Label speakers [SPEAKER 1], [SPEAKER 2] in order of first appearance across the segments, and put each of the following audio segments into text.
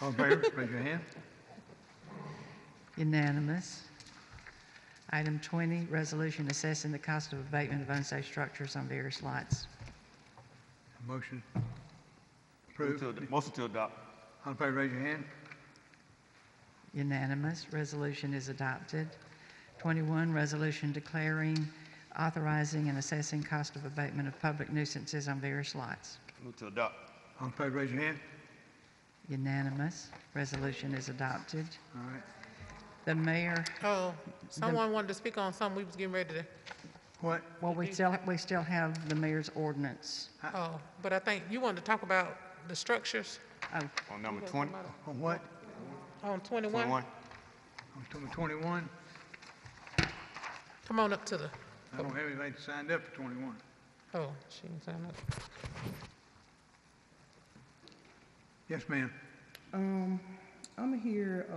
[SPEAKER 1] All in favor, raise your hand.
[SPEAKER 2] Unanimous. Item 20, resolution assessing the cost of abatement of unsafe structures on various lots.
[SPEAKER 1] Motion
[SPEAKER 3] Move
[SPEAKER 1] approved.
[SPEAKER 3] to ad- Motion to adopt.
[SPEAKER 1] All in favor, raise your hand.
[SPEAKER 2] Unanimous. Resolution is adopted. 21, resolution declaring, authorizing, and assessing cost of abatement of public nuisances on various lots.
[SPEAKER 3] Move to adopt.
[SPEAKER 1] All in favor, raise your hand.
[SPEAKER 2] Unanimous. Resolution is adopted.
[SPEAKER 1] All right.
[SPEAKER 2] The mayor,
[SPEAKER 4] Oh, someone wanted to speak on something we was getting ready to,
[SPEAKER 1] What?
[SPEAKER 2] well, we still, we still have the mayor's ordinance.
[SPEAKER 4] oh, but I think you wanted to talk about the structures
[SPEAKER 2] Oh,
[SPEAKER 3] On number 20,
[SPEAKER 1] On what?
[SPEAKER 4] on 21.
[SPEAKER 3] 21.
[SPEAKER 1] On number 21?
[SPEAKER 4] Come on up to the,
[SPEAKER 1] I don't have anybody signed up for 21.
[SPEAKER 4] oh, she didn't sign up.
[SPEAKER 1] Yes, ma'am.
[SPEAKER 5] Um, I'm here, uh,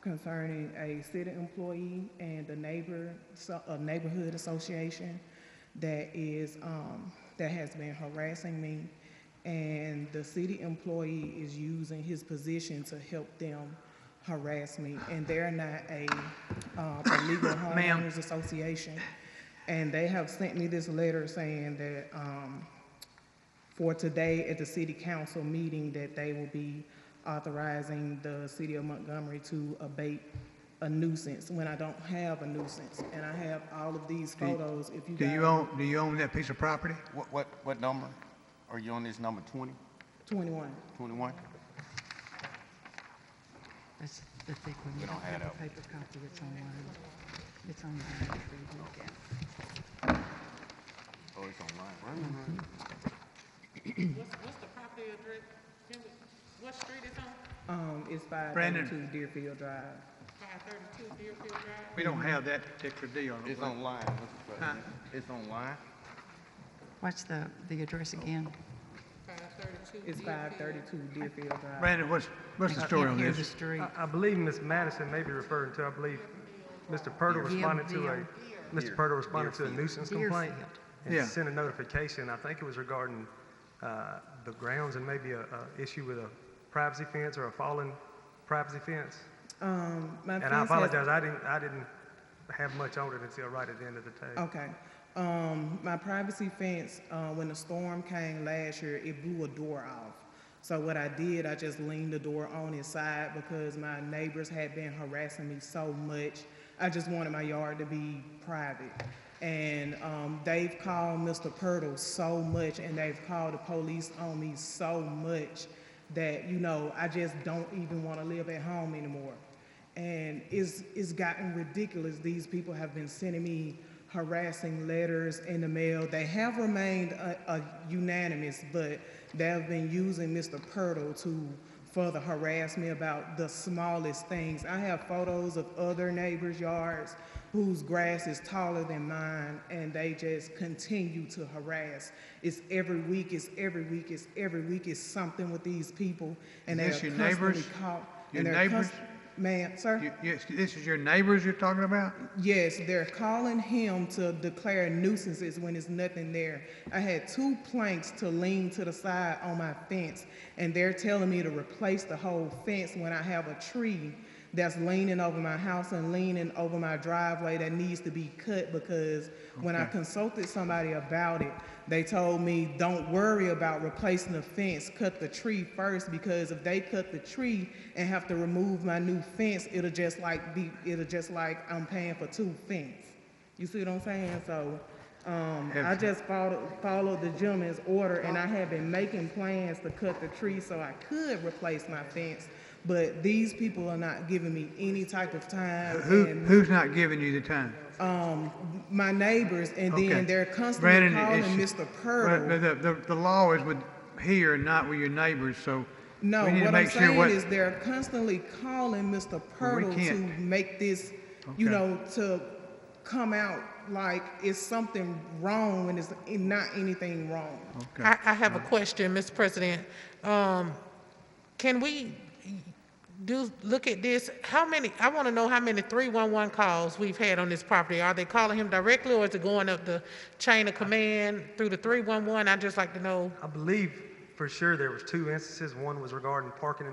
[SPEAKER 5] concerning a city employee and a neighbor, so, a neighborhood association that is, um, that has been harassing me. And the city employee is using his position to help them harass me. And they're not a, uh, a legal
[SPEAKER 1] Ma'am.
[SPEAKER 5] homeowners association. And they have sent me this letter saying that, um, for today at the city council meeting that they will be authorizing the city of Montgomery to abate a nuisance when I don't have a nuisance. And I have all of these photos, if you
[SPEAKER 1] Do you
[SPEAKER 5] guys,
[SPEAKER 1] own, do you own that piece of property?
[SPEAKER 3] What, what, what number? Are you on this number 20,
[SPEAKER 5] twenty-one.
[SPEAKER 3] 21?
[SPEAKER 2] that's the thick one. You don't have a paper copy. It's online. It's online.
[SPEAKER 3] Oh, it's online.
[SPEAKER 4] What's, what's the property address? What street it's on?
[SPEAKER 5] Um, it's five
[SPEAKER 1] Brandon.
[SPEAKER 5] thirty-two Deerfield Drive.
[SPEAKER 4] 532 Deerfield Drive?
[SPEAKER 1] We don't have that particular deal.
[SPEAKER 3] It's online, Mr. President. It's online.
[SPEAKER 2] What's the, the address again?
[SPEAKER 4] 532
[SPEAKER 5] It's five thirty-two Deerfield Drive.
[SPEAKER 1] Brandon, what's, what's
[SPEAKER 2] Uh,
[SPEAKER 1] the story on
[SPEAKER 2] Can't hear the
[SPEAKER 1] this?
[SPEAKER 2] street.
[SPEAKER 6] I- I believe Ms. Madison may be referring to, I believe, Mr. Purtle responded to a,
[SPEAKER 2] Deer.
[SPEAKER 6] Mr. Purtle responded to a nuisance complaint.
[SPEAKER 2] Deerfield.
[SPEAKER 1] Yeah.
[SPEAKER 6] And sent a notification, I think it was regarding uh, the grounds and maybe a, a issue with a privacy fence or a fallen privacy fence.
[SPEAKER 5] Um, my
[SPEAKER 6] And I
[SPEAKER 5] fence has-
[SPEAKER 6] apologize, I didn't, I didn't have much on it until right at the end of the day.
[SPEAKER 5] Okay. Um, my privacy fence, uh, when the storm came last year, it blew a door off. So what I did, I just leaned the door on its side because my neighbors had been harassing me so much. I just wanted my yard to be private. And, um, they've called Mr. Purtle so much and they've called the police on me so much that, you know, I just don't even want to live at home anymore and it's, it's gotten ridiculous. These people have been sending me harassing letters in the mail. They have remained uh, uh, unanimous, but they have been using Mr. Purtle to further harass me about the smallest things. I have photos of other neighbors' yards whose grass is taller than mine, and they just continue to harass. It's every week, it's every week, it's every week, it's something with these people, and they are
[SPEAKER 1] Is this your
[SPEAKER 5] constantly
[SPEAKER 1] neighbors?
[SPEAKER 5] caught.
[SPEAKER 1] Your
[SPEAKER 5] and they're
[SPEAKER 1] neighbors?
[SPEAKER 5] const- Ma'am, sir?
[SPEAKER 1] You- Yes, this is your neighbors you're talking about?
[SPEAKER 5] Yes, they're calling him to declare nuisances when there's nothing there. I had two planks to lean to the side on my fence, and they're telling me to replace the whole fence when I have a tree that's leaning over my house and leaning over my driveway that needs to be cut because when I
[SPEAKER 1] Okay.
[SPEAKER 5] consulted somebody about it, they told me, don't worry about replacing the fence, cut the tree first, because if they cut the tree and have to remove my new fence, it'll just like be, it'll just like I'm paying for two fence. You see what I'm saying? So, um, I
[SPEAKER 1] Have- Oh.
[SPEAKER 5] just followed, followed the gentleman's order, and I had been making plans to cut the tree so I could replace my fence, but these people are not giving me any type of time.
[SPEAKER 1] Who,
[SPEAKER 5] and
[SPEAKER 1] who's not giving you the time?
[SPEAKER 5] um, my neighbors, and
[SPEAKER 1] Okay.
[SPEAKER 5] then they're constantly
[SPEAKER 1] Brandon,
[SPEAKER 5] calling
[SPEAKER 1] it's-
[SPEAKER 5] Mr.
[SPEAKER 1] Well, The,
[SPEAKER 5] Purtle.
[SPEAKER 1] the- the- the law is with here, not with your neighbors, so
[SPEAKER 5] No,
[SPEAKER 1] we need to
[SPEAKER 5] what I'm
[SPEAKER 1] make sure
[SPEAKER 5] saying
[SPEAKER 1] what,
[SPEAKER 5] is they're constantly calling Mr.
[SPEAKER 1] Well, we
[SPEAKER 5] Purtle to
[SPEAKER 1] can't.
[SPEAKER 5] make this, you
[SPEAKER 1] Okay.
[SPEAKER 5] know, to come out like it's something wrong when it's not anything wrong.
[SPEAKER 1] okay.
[SPEAKER 4] I, I have a question, Mr. President. Um, can we do, look at this? How many, I want to know how many 311 calls we've had on this property. Are they calling him directly or is it going up the chain of command through the 311? I'd just like to know.
[SPEAKER 6] I believe for sure there was two instances, one was regarding parking in the